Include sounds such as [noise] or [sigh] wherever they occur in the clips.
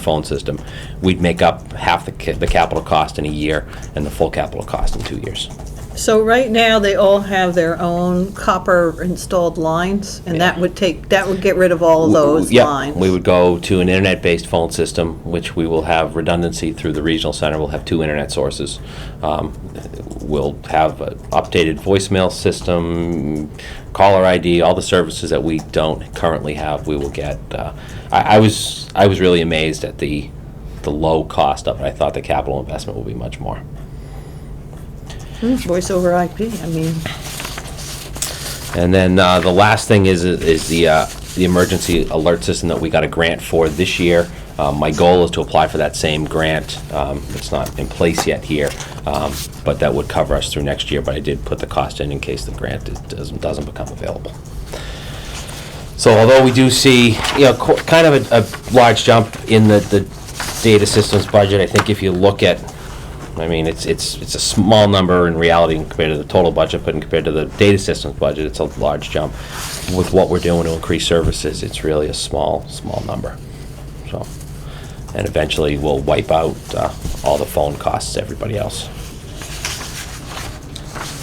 phone system, we'd make up half the, ca- the capital cost in a year and the full capital cost in two years. So right now, they all have their own copper installed lines, and that would take, that would get rid of all of those Yeah, lines? We would go to an internet-based phone system, which we will have redundancy through the regional center. We'll have two internet sources. Um, We'll have an updated voicemail system, caller ID, all the services that we don't currently have, we will get. Uh, I, I was, I was really amazed at the, the low cost of it. I thought the capital investment would be much more. Hmm, Voice over IP, I mean, And then uh, the last thing is, is the, uh, the emergency alert system that we got a grant for this year. Um, My goal is to apply for that same grant. Um, It's not in place yet here, um, but that would cover us through next year. But I did put the cost in in case the grant is- doesn't, doesn't become available. So although we do see, you know, co- kind of a, a large jump in the, the data systems budget, I think if you look at, I mean, it's, it's, it's a small number in reality compared to the total budget, but in compared to the data systems budget, it's a large jump. With what we're doing to increase services, it's really a small, small number, so. And eventually, we'll wipe out, uh, all the phone costs, everybody else.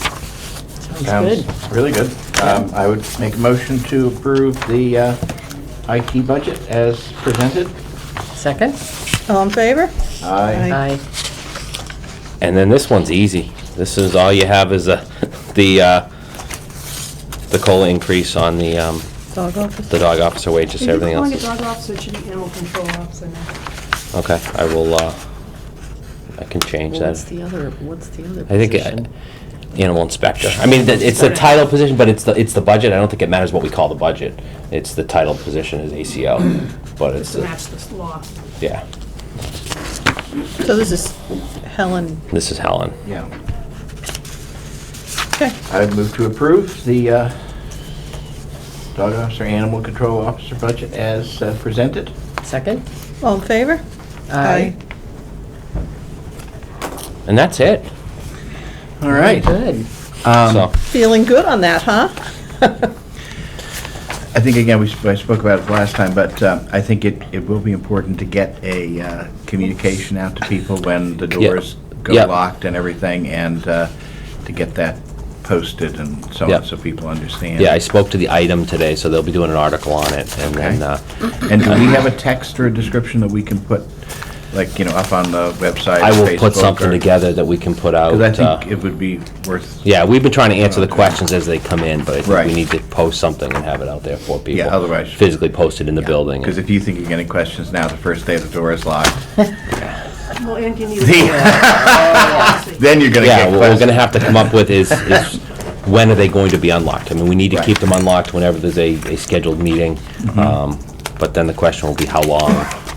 good. Sounds Really good. Um, I would make a motion to approve the uh, IT budget as presented. Second? all in favor? Aye. Aye. And then this one's easy. This is, all you have is a, [laughs] the, uh, the COLA increase on the, um, Dog office? the dog officer wages, If you're everything calling else. it is- dog officer, it should be animal control officer now. Okay, I will, uh, I can change Well, that. What's the other, what's the other I think, uh, position? animal inspector. I mean, that- it's the title position, but it's the, it's the budget. I don't think it matters what we call the budget. It's the title position is ACO, but it's, To the- match this law. yeah. So this is Helen, This is Helen. Yeah. okay, I would move to approve the uh, dog officer, animal control officer budget as uh, presented. Second? all in favor? And that's it. All right. Good. Um, So, Feeling good on that, huh? I think, again, we sp- I spoke about it last time, but uh, I think it it will be important to get a uh, communication out to people when the Yeah. doors go Yeah. locked and everything, and uh, to get that posted and so Yeah. on, so people understand. yeah, I spoke to the item today, so they'll be doing an article on it and then, Okay. uh, And do we have a text or a description that we can put, like, you know, up on the website? I will put something together that we can put out. Because uh, I think it would be worth, Yeah, we've been trying to answer the questions as they come in, but I think we Right. need to post something and have it out there for people. Yeah, otherwise- Physically posted in the building. because if you think you're getting questions now, the first day the door is locked, [laughs] Well, and you need. then you're gonna Yeah, get what we're gonna questions. have to come up with [laughs] is, is when are they going to be unlocked? I mean, we need to keep Right. Mm-hmm. them unlocked whenever there's a, a scheduled meeting. Um, But then the question will be how long,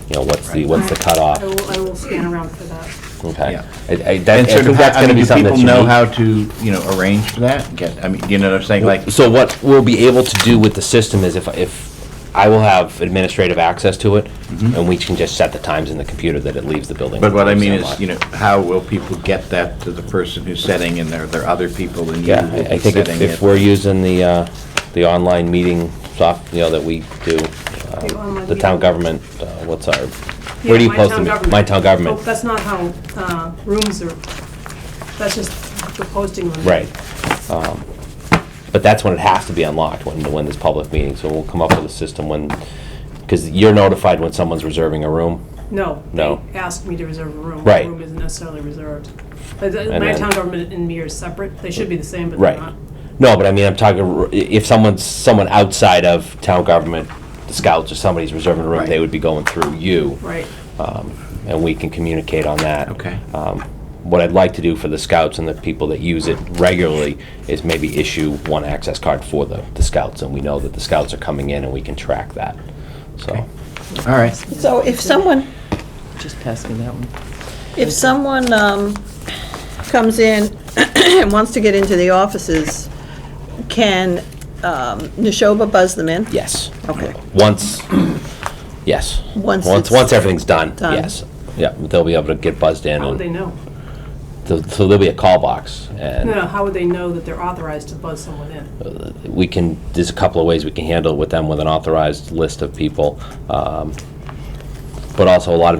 you know, what's the, what's the I cutoff? will, I will scan around for that. Okay. Yeah. I, I, that- I And sort think of, that's how- I gonna mean, be do something people that's unique. know how to, you know, arrange for that? Get, I mean, you know what I'm saying, like, So what we'll be able to do with the system is if, if, I will have administrative access to it, and we can just set the times in the computer that it leaves the building. Mm-hmm. but what I mean Unlocked. is, you know, how will people get that to the person who's setting, and there, there are other people than you Yeah, who will I I be think if, setting if it? we're using the, uh, the online meeting soft, you know, that we do, um, online the town meeting. government, uh, what's our, where do you Yeah, my post town them? government. My town government. Oh, That's not how, uh, rooms are, that's just the posting on. it. Right. Um, But that's when it has to be unlocked, when, when there's public meeting, so we'll come up with a system when, because you're notified when someone's reserving a room. No. No. They asked me to reserve a room. Right. The room isn't necessarily reserved. But the- And My then- town government and me are separate. They should be the same, but they're not. No, but I mean, I'm talking, r- i- if someone's, someone outside of town government, the scouts or somebody's reserving a room, Right. they would be going through you. Right. um, and we can communicate on that. Okay. Um, What I'd like to do for the scouts and the people that use it regularly is maybe issue one access card for the, the scouts, and we know that the scouts are coming in and we can track that, so. All right. So if someone, Just pass me that one. if someone um, comes in [clears throat] and wants to get into the offices, can um, Neshoba buzz them in? Yes. Okay. Once, yes. Once Once, it's once everything's done, done. yes. Yeah, they'll be able to get buzzed in, How and would they know? th- so there'll be a call box, and. No, no, how would they know that they're authorized to buzz someone in? we can, there's a couple of ways we can handle it with them, with an authorized list of people. um, but also a lot of it